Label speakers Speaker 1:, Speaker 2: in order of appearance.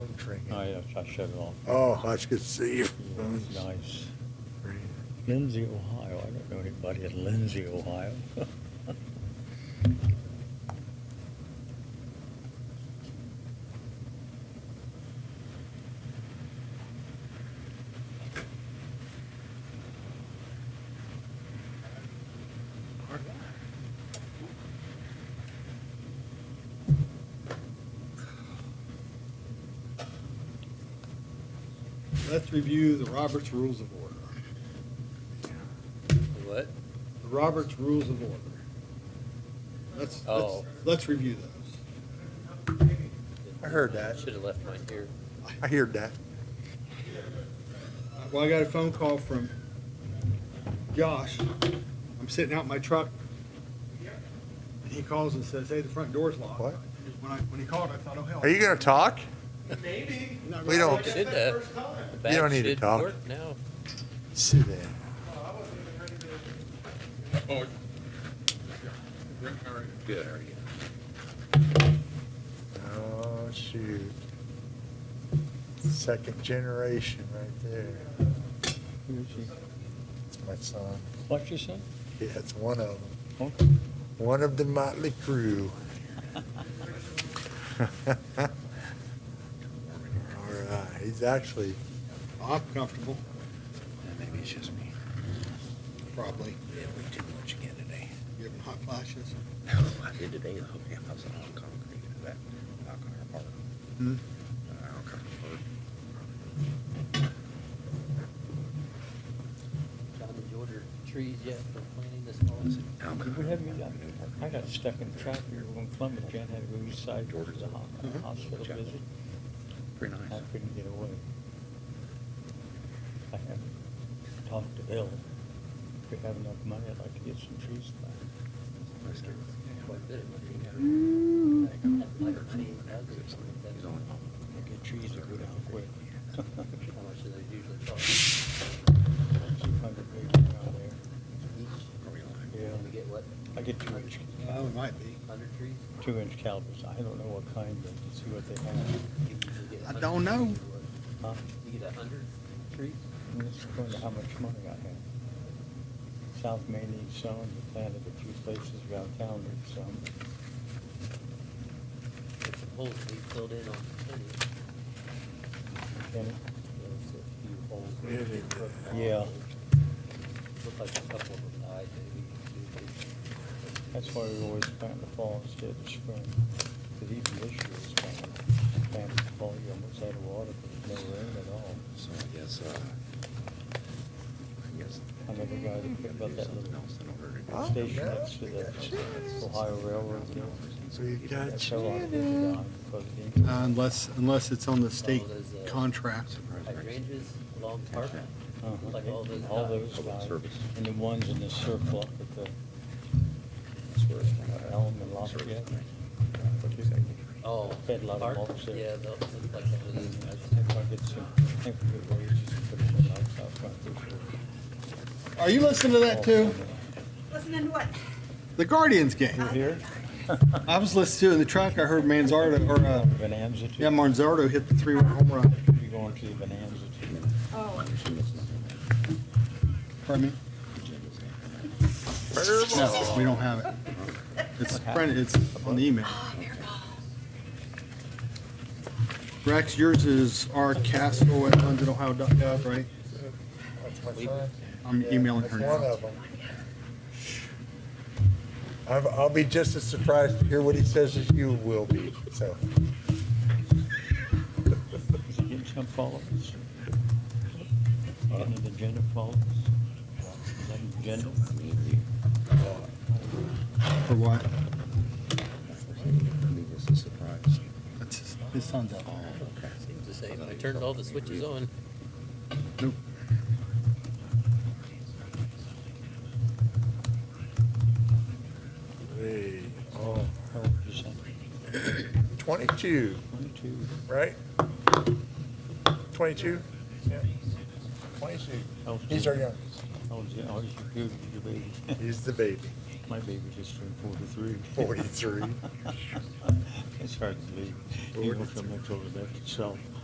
Speaker 1: I, I shut it off.
Speaker 2: Oh, I should see you.
Speaker 1: It's Nice. Lindsay, Ohio. I don't know anybody in Lindsay, Ohio.
Speaker 3: Let's review the Roberts Rules of Order.
Speaker 1: What?
Speaker 3: The Roberts Rules of Order. Let's, let's,
Speaker 1: Oh.
Speaker 3: let's review those.
Speaker 2: I heard that.
Speaker 1: Should have left mine here.
Speaker 2: I heard that.
Speaker 3: Uh, Well, I got a phone call from Josh. I'm sitting out in my truck. And he calls and says, hey, the front door's locked.
Speaker 2: What?
Speaker 3: When I, when he called, I thought, oh, hell.
Speaker 2: Are you gonna talk?
Speaker 3: Maybe.
Speaker 2: We don't-
Speaker 3: That's the first time.
Speaker 1: The
Speaker 2: You don't
Speaker 1: back
Speaker 2: need to
Speaker 1: should
Speaker 2: talk.
Speaker 1: work Now.
Speaker 2: Sit down.
Speaker 1: Good, how are you?
Speaker 2: Oh, shoot. Second generation right there. It's my son.
Speaker 1: What you said?
Speaker 2: Yeah, it's one of them.
Speaker 1: Okay.
Speaker 2: One of the motley crew. All right, he's actually,
Speaker 3: I'm comfortable,
Speaker 4: Maybe it's just me.
Speaker 3: probably,
Speaker 4: Yeah, we did lunch again today.
Speaker 3: given hot flashes.
Speaker 4: I did today, the whole house on concrete, that, alcohol park.
Speaker 3: Hmm?
Speaker 4: Uh, Alcohol park.
Speaker 5: John, did you order trees yet for planting this
Speaker 4: Is
Speaker 5: fall?
Speaker 4: it
Speaker 3: Mm, um,
Speaker 4: alcohol?
Speaker 1: Did we have you down?
Speaker 4: New
Speaker 1: I
Speaker 4: park.
Speaker 1: got stuck in traffic here when Columbus, Jan had to go east side towards the ho-
Speaker 3: Mhm.
Speaker 1: hospital
Speaker 4: Check.
Speaker 1: visit. I
Speaker 4: Pretty nice.
Speaker 1: couldn't get away. I haven't talked to Bill. If we have enough money, I'd like to get some trees
Speaker 4: Nice
Speaker 1: back.
Speaker 4: kid.
Speaker 5: Quite good. Like a tree, that's a-
Speaker 4: He's on.
Speaker 1: I Get trees to go down quick.
Speaker 5: How much do they usually cost?
Speaker 1: Two hundred maybe around
Speaker 5: Each?
Speaker 4: Are we on?
Speaker 1: there.
Speaker 5: You
Speaker 1: Yeah,
Speaker 5: get what,
Speaker 1: I get two inch,
Speaker 3: Well, it might be.
Speaker 5: hundred trees?
Speaker 1: two inch calibers. I don't know what kind, but to see what they have.
Speaker 5: You usually get a
Speaker 3: I
Speaker 5: hundred
Speaker 3: don't know.
Speaker 5: trees or
Speaker 1: Huh?
Speaker 5: what? You get a hundred trees?
Speaker 1: And it's according to how much money I have. South Main needs some, we planted a few places around town with some.
Speaker 5: Put some holes we filled in on plenty.
Speaker 1: Kenny?
Speaker 5: There's a few holes. that
Speaker 2: Really?
Speaker 5: we put in.
Speaker 1: Yeah.
Speaker 5: Looked like a couple of them died, maybe. two, three.
Speaker 1: That's why we always plant in the fall instead of spring. Because even this year it's kind of, planted in the fall, you almost had water, but there's no rain at all.
Speaker 4: So I guess, uh, I guess.
Speaker 1: I never got it, but about that little-
Speaker 2: Oh,
Speaker 1: The station
Speaker 2: yeah.
Speaker 1: next to the Ohio Railroad. you know,
Speaker 2: we got
Speaker 1: that fell off, it
Speaker 2: Jenna.
Speaker 1: died because it didn't-
Speaker 3: Uh, Unless, unless it's on the
Speaker 5: state
Speaker 3: state
Speaker 5: Oh, there's a-
Speaker 3: contract.
Speaker 5: Hydrangeas along Park,
Speaker 1: Uh-huh.
Speaker 5: looked like all those
Speaker 1: All
Speaker 5: died.
Speaker 1: those
Speaker 4: Public
Speaker 1: died.
Speaker 4: service.
Speaker 1: And the ones in the circle up at the Elm and Lafayette.
Speaker 5: Oh.
Speaker 1: Fed a lot of
Speaker 5: Park?
Speaker 1: mulch there.
Speaker 5: Yeah, that looked like that was.
Speaker 1: I think I'll get some, I think we'll get wages and put them in the lights out front this year.
Speaker 3: Are you listening to that too?
Speaker 6: Listening to what?
Speaker 3: The Guardians game.
Speaker 1: You here?
Speaker 3: I was listening to it in the truck. I heard Manzardo, or, uh,
Speaker 1: Bonanza too?
Speaker 3: yeah, Manzardo hit the three-run home run.
Speaker 1: You going to the Bonanza too?
Speaker 6: Oh,
Speaker 3: Pardon me? No, we don't have it. It's, printed- it's on the email. Rex, yours is rcastle@lundedohio.gov, right?
Speaker 2: That's my son.
Speaker 3: I'm emailing her
Speaker 2: That's one
Speaker 3: now.
Speaker 2: of them. I'll, I'll be just as surprised to hear what he says as you will be, so.
Speaker 1: Is he getting some followers? Getting an agenda followers? Is that an agenda?
Speaker 3: For what?
Speaker 4: Maybe this is a surprise.
Speaker 3: That's his- His son's out.
Speaker 5: Seems the same. I turned all the switches on.
Speaker 3: Nope.
Speaker 2: Hey, oh,
Speaker 1: How old is that?
Speaker 2: Twenty-two,
Speaker 1: Twenty-two.
Speaker 2: right? Twenty-two? Yeah. Twenty-two.
Speaker 1: How old's
Speaker 2: He's
Speaker 1: he?
Speaker 2: our youngest.
Speaker 1: How old's he? Oh, he's your, your baby.
Speaker 2: He's the baby.
Speaker 1: My baby just turned forty-three.
Speaker 2: 43.
Speaker 1: It's hard to believe, even from much older than itself.